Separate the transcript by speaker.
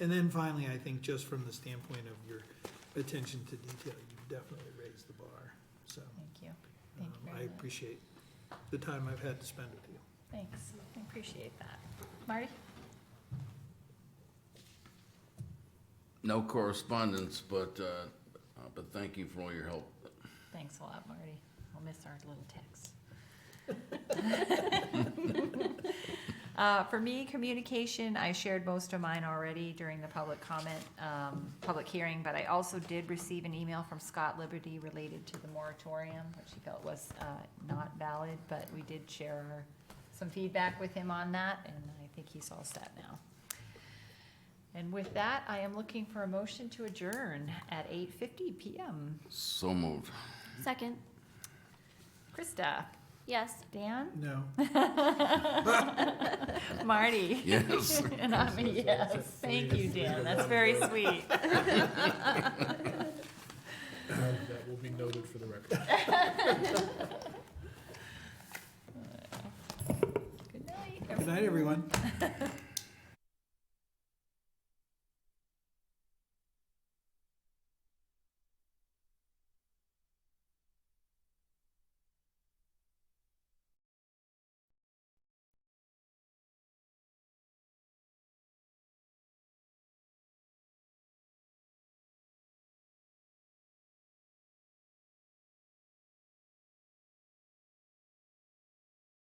Speaker 1: And then finally, I think just from the standpoint of your attention to detail, you've definitely raised the bar, so.
Speaker 2: Thank you. Thank
Speaker 1: um,
Speaker 2: you
Speaker 1: I
Speaker 2: very much.
Speaker 1: appreciate the time I've had to spend with you.
Speaker 2: Thanks. I appreciate that. Marty?
Speaker 3: No correspondence, but, uh, uh, but thank you for all your help.
Speaker 2: Thanks a lot, Marty. I'll miss our little texts. Uh, For me, communication, I shared most of mine already during the public comment, um, public hearing, but I also did receive an email from Scott Liberty related to the moratorium, which he felt was uh, not valid, but we did share our- some feedback with him on that, and I think he's all set now. And with that, I am looking for a motion to adjourn at 8:50 PM.
Speaker 3: So moved.
Speaker 4: Second,
Speaker 2: Krista?
Speaker 4: yes.
Speaker 2: Dan?
Speaker 1: No,
Speaker 2: Marty?
Speaker 3: Yes.
Speaker 2: And I'm a yes. Thank you, Dan. That's very sweet.
Speaker 5: That will be noted for the record.
Speaker 2: Good night.
Speaker 1: good night, everyone.